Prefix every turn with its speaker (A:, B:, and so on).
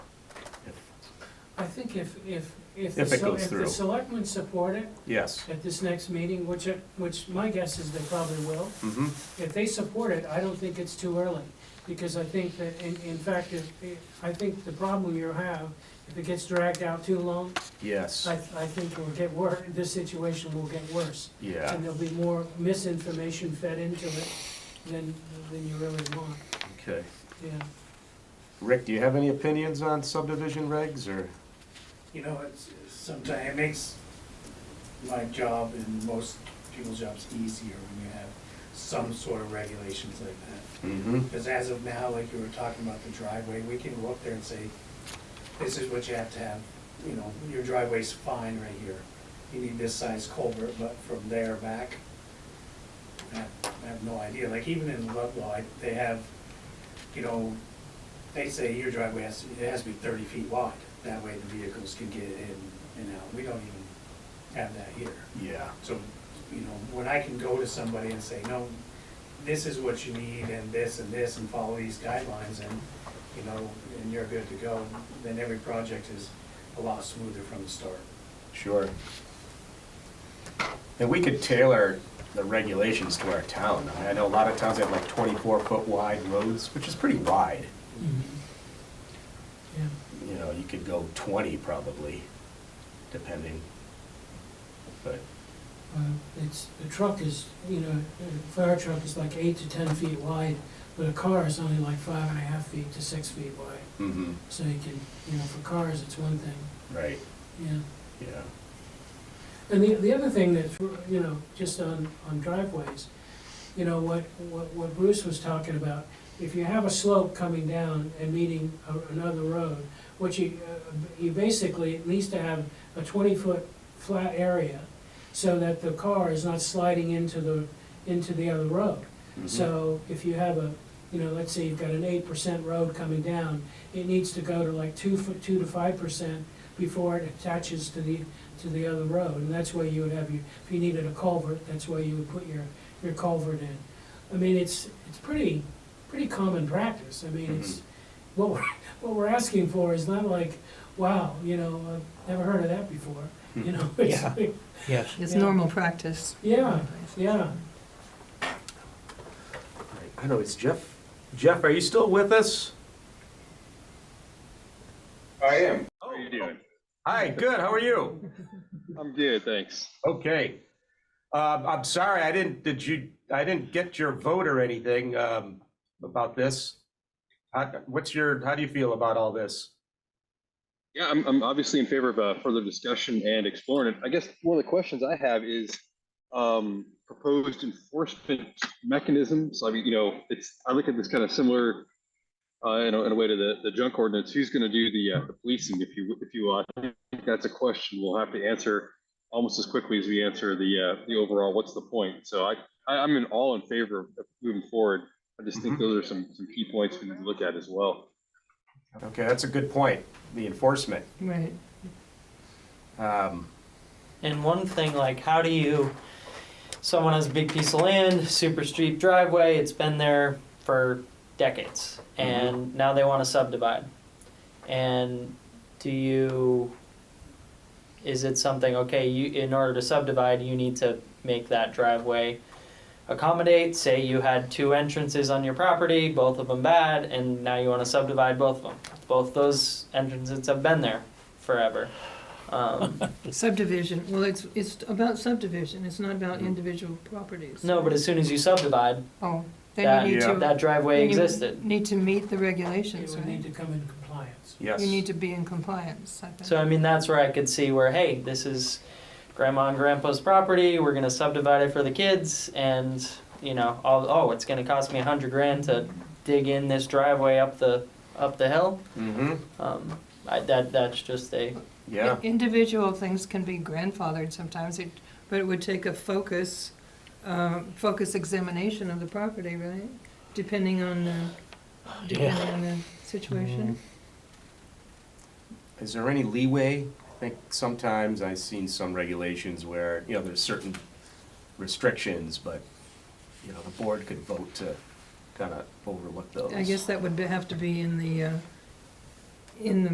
A: I think if, if, if.
B: If
A: the
B: it
A: sel-
B: goes through.
A: If the selectmen support it
B: Yes.
A: at this next meeting, which, I- which my guess is they probably will,
B: Mm-hmm.
A: if they support it, I don't think it's too early. Because I think that, in, in fact, if, I think the problem you have, if it gets dragged out too long,
B: Yes.
A: I, I think it'll get wor, this situation will get worse.
B: Yeah.
A: And there'll be more misinformation fed into it than, than you really want,
B: Okay.
A: yeah.
B: Rick, do you have any opinions on subdivision regs or?
C: You know, it's, sometimes, it makes my job and most people's jobs easier when you have some sort of regulations like that.
B: Mm-hmm.
C: Because as of now, like you were talking about the driveway, we can go up there and say, this is what you have to have, you know, your driveway's fine right here. You need this size culvert, but from there back, I have, I have no idea. Like even in Ludlow, I- they have, you know, they say your driveway has, to- it has to be thirty feet wide. That way the vehicles can get in and out. We don't even have that here.
B: Yeah.
C: So, you know, when I can go to somebody and say, no, this is what you need, and this and this, and follow these guidelines, and, you know, and you're good to go, then every project is a lot smoother from the start.
B: Sure. And we could tailor the regulations to our town. I mean, I know a lot of towns have like twenty-four foot wide roads, which is pretty wide.
A: Yeah.
B: You know, you could go twenty probably, depending. But,
A: Uh, It's, the truck is, you know, a fire truck is like eight to ten feet wide, but a car is only like five and a half feet to six feet wide.
B: mm-hmm,
A: So you can, you know, for cars, it's one thing,
B: right,
A: yeah.
B: yeah.
A: And the, the other thing that's, you know, just on, on driveways, you know, what, what what Bruce was talking about, if you have a slope coming down and meeting a- another road, what you, uh, you basically at least have a twenty-foot flat area so that the car is not sliding into the, into the other road.
B: Mhm.
A: So if you have a, you know, let's say you've got an eight percent road coming down, it needs to go to like two, fo- two to five percent before it attaches to the, to the other road. And that's where you would have your, if you needed a culvert, that's where you would put your, your culvert in. I mean, it's, it's pretty, pretty common practice. I mean, it's, what we're, what we're asking for is not like, wow, you know, I've never heard of that before, you know? it's
D: Yeah.
A: like-
D: Yes.
E: It's
A: Yeah.
E: normal practice.
A: Yeah, yeah.
B: I know, it's Jeff. Jeff, are you still with us?
F: I am. How are you doing?
B: Hi, good, how are you?
F: I'm good, thanks.
B: Okay. Um, I'm sorry, I didn't, did you, I didn't get your vote or anything, um, about this. How, what's your, how do you feel about all this?
F: Yeah, I'm, I'm obviously in favor of uh, further discussion and exploring it. I guess one of the questions I have is um, proposed enforcement mechanisms. I mean, you know, it's, I look at this kind of similar, uh, in a, in a way to the, the junk ordinance, who's going to do the, uh, the policing if you, if you, uh, I think that's a question we'll have to answer almost as quickly as we answer the, uh, the overall, what's the point? So I, I, I'm in all in favor of moving forward. I just think
B: Mhm.
F: those are some, some key points we need to look at as well.
B: Okay, that's a good point, the enforcement.
E: Right.
B: Um,
D: And one thing, like, how do you, someone has a big piece of land, super steep driveway, it's been there for decades, and now they want to subdivide. And do you, is it something, okay, you, in order to subdivide, you need to make that driveway accommodate, say you had two entrances on your property, both of them bad, and now you want to subdivide both of them. Both those entrances have been there forever. Um,
E: Subdivision, well, it's, it's about subdivision, it's not about individual properties.
D: Mm-hmm. No, but as soon as you subdivide,
E: Oh,
D: That-
E: then you need
B: Yeah.
E: to.
D: that driveway
E: then you
D: existed.
E: Need to meet the
A: It
E: regulations,
A: would need
E: right?
A: to come in compliance.
B: yes.
E: You need to be in compliance, I think.
D: So I mean, that's where I could see where, hey, this is grandma and grandpa's property. We're gonna subdivide it for the kids, and you know, all, oh, it's gonna cost me a hundred grand to dig in this driveway up the up the hill.
B: Mm-hmm,
D: Um, I, that that's just a
B: yeah,
E: Individual things can be grandfathered sometimes, it- but it would take a focus, uh, focus examination of the property, right? Depending on the, depending on the situation.
D: Mm-hmm.
B: is there any leeway? I think sometimes I've seen some regulations where, you know, there's certain restrictions, but, you know, the board could vote to kind of overlook those.
E: I guess that would be- have to be in the, uh, in the